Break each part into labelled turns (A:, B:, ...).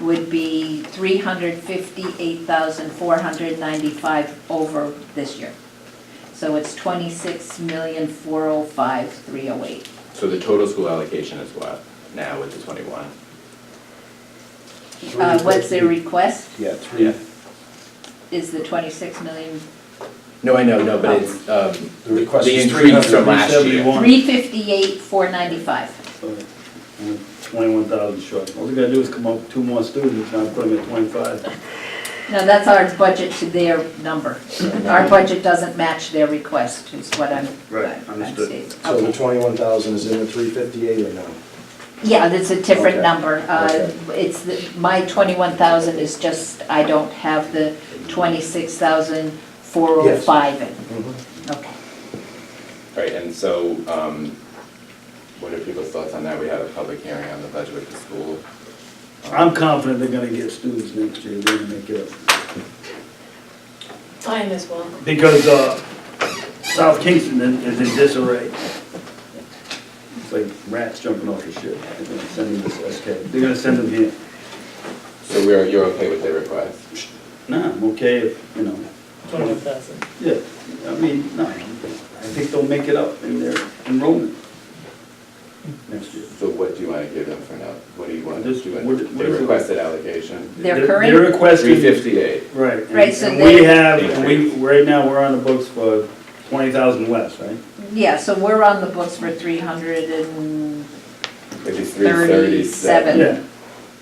A: would be three hundred fifty-eight thousand four hundred ninety-five over this year. So it's twenty-six million four oh five three oh eight.
B: So the total school allocation is what now with the twenty-one?
A: Uh, what's their request
C: Yeah, three,
B: Yeah.
A: is the twenty-six million,
B: No, I know, no, but it's, um,
C: the request
B: The
C: is three
B: increase
C: hundred
B: from
C: and
B: last year.
C: seventy-one.
A: three fifty-eight four ninety-five.
C: Twenty-one thousand short. All we gotta do is come up with two more students, now put them at twenty-five.
A: Now, that's our budget to their number. Our budget doesn't match their request, is what I'm,
C: Right,
A: I'm I'm
C: understood.
A: stating.
D: So the
A: Okay.
D: twenty-one thousand is in the three fifty-eight or no?
A: Yeah, that's a different
D: Okay.
A: number. Uh,
D: Okay.
A: It's, the- my 21,000 is just, I don't have the 26,405 in.
D: Mm-hmm.
A: Okay.
B: right, and so, um, what are people's thoughts on that? We had a public hearing on the budget with the school.
C: I'm confident they're gonna get students next year, they're gonna make it up.
E: I am as well.
C: Because, uh, South Kingston is is in disarray. It's like rats jumping off a ship. They're gonna send them to SK. They're gonna send them here.
B: So we're, you're okay with the request?
C: Nah, I'm okay if, you know.
F: Twenty thousand.
C: Yeah, I mean, no, I think they'll make it up in their enrollment next year.
B: So what do you want to give them for now? What do you want to
C: Just
B: do?
C: what- what
B: They
C: is it?
B: requested allocation,
A: Their
C: They're-
A: current-
C: They're requesting.
B: three fifty-eight.
C: Right. and-
A: Right, so
C: And we
A: they-
C: have, and we, right now, we're on the books for twenty thousand less, right?
A: Yeah, so we're on the books for 300 and,
B: It'd be three thirty-seven.
C: Yeah.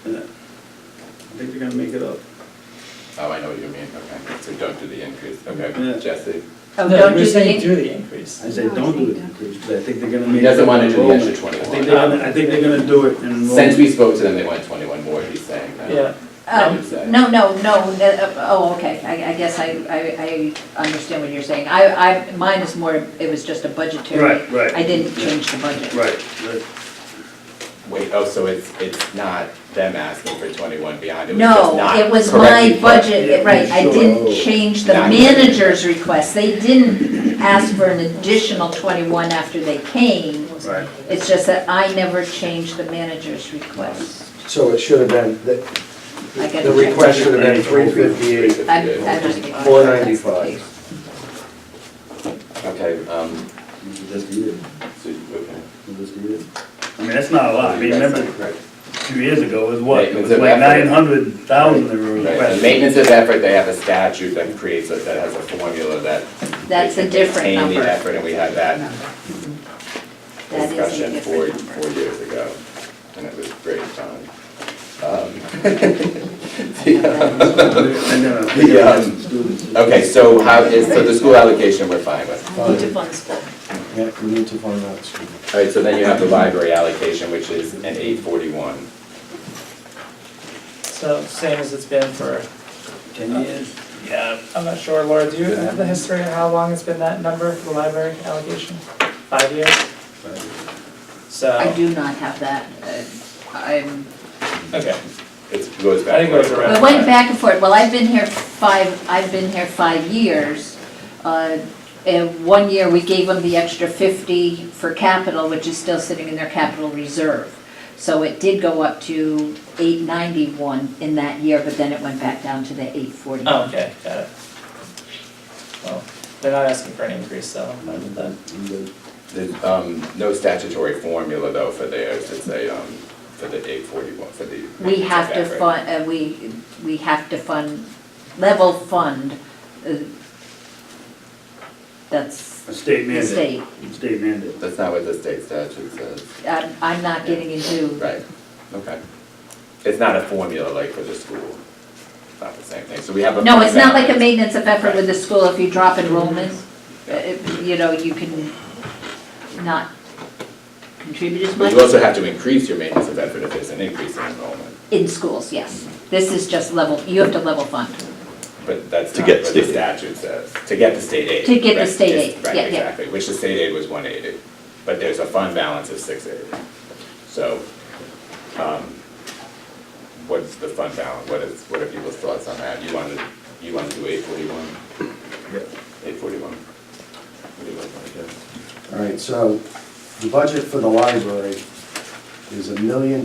C: And I think they're gonna make it up.
B: Oh, I know what you mean, okay. So don't do the increase,
C: Yeah.
B: okay, Jesse?
A: oh,
F: No,
A: don't
F: we're
A: do
F: saying
A: the,
F: through the increase.
C: I say, don't do it, but I think they're gonna
B: He
C: make. it
B: doesn't
C: up
B: wanna
C: in
B: do the extra
C: enrollment.
B: 21.
C: I think they're gonna, I think they're gonna do it in enrollment.
B: Since we spoke to them, they want twenty-one more, he's saying. no?
F: Yeah,
B: I
A: um,
B: would say.
A: no, no, no, uh, oh, okay, I I guess I, I I understand what you're saying. I, I, mine is more, it was just a budgetary.
C: Right, right.
A: I didn't change the budget.
C: Right, right.
B: Wait, oh, so it's, it's not them asking for twenty-one beyond, it was just
A: No,
B: not.
A: it was
B: correctly
A: my
B: put.
A: budget, right, I didn't
D: Sure.
A: change the
B: Not-
A: manager's request. They didn't ask for an additional 21 after they came.
C: Right.
A: It's just that I never changed the manager's request.
D: So it should have been, the,
A: I gotta
D: the
A: check.
D: request should have been three
B: Three
D: fifty-eight.
A: I'm-
B: fifty-eight.
A: I'm not getting-
D: 495.
B: Okay, um,
C: You should just do it,
B: so, okay.
C: You just do it. I mean, that's not a lot, I mean, remember,
B: Right.
C: two years ago, it was what, it
B: Maintenance
C: was
B: of
C: like
B: effort.
C: nine hundred thousand they were
B: Right, the
C: requesting.
B: Maintenance of effort, they have a statute that creates, a- that has a formula that.
A: That's
B: they
A: a
B: can
A: different
B: maintain
A: number.
B: the effort, and we had that
A: That is a
B: discussion four,
A: different number.
B: four years ago, and it was great fun. Um, the,
C: And then, uh,
B: The, um,
C: students.
B: um, Okay, so how is, so the school allocation, we're fine with.
E: I need to fund school.
D: Yeah, we need to find out. excuse me.
B: All right, so then you have the library allocation, which is an eight forty-one.
F: so same as it's been for,
C: Ten years.
F: yeah, I'm not sure, Laura, do you have the history of how long it's been that number, the library allocation? Five years? So,
A: I do not have that. Uh, I'm,
F: okay,
B: It goes back.
F: I think it goes
B: quite a
F: around.
A: I went back and forth, well, I've been here five, I've been here five years. Uh, And one year, we gave them the extra 50 for capital, which is still sitting in their capital reserve. So it did go up to 891 in that year, but then it went back down to the 840.
F: oh, okay, got it. Well, they're not asking for an increase, so I'm fine with that.
B: There's, um, no statutory formula though for theirs, it's a, um, for the eight forty-one, for the.
A: We have to
B: effort.
A: fund, uh, we, we have to fund, level fund, uh, that's
C: A state
A: the
C: mandate.
A: state.
C: State mandate.
B: That's not what the state statute says.
A: I'm, I'm not getting into
B: Right, okay. It's not a formula like for the school. It's not the same thing, so we have a.
A: No, it's not like a
B: fundamental-
A: maintenance of effort with the school, if you drop enrollment, uh,
B: Yeah.
A: you know, you can not contribute as
B: But
A: much.
B: you also have to increase your maintenance of effort if there's an increase in enrollment,
A: In schools, yes. This is just level, you have to level fund.
B: but that's
G: To
B: not
G: get
B: what the
G: state aid.
B: statute says. To get the state aid.
A: To get the
B: right,
A: state
B: is-
A: aid, yeah, yeah.
B: Right, exactly, which the state aid was one eighty, but there's a fund balance of six eighty. So, um, what's the fund balance, what is, what are people's thoughts on that? You wanna, you wanna do eight forty-one? Eight forty-one? What do you guys wanna do?
D: All right, so the budget for the library is a million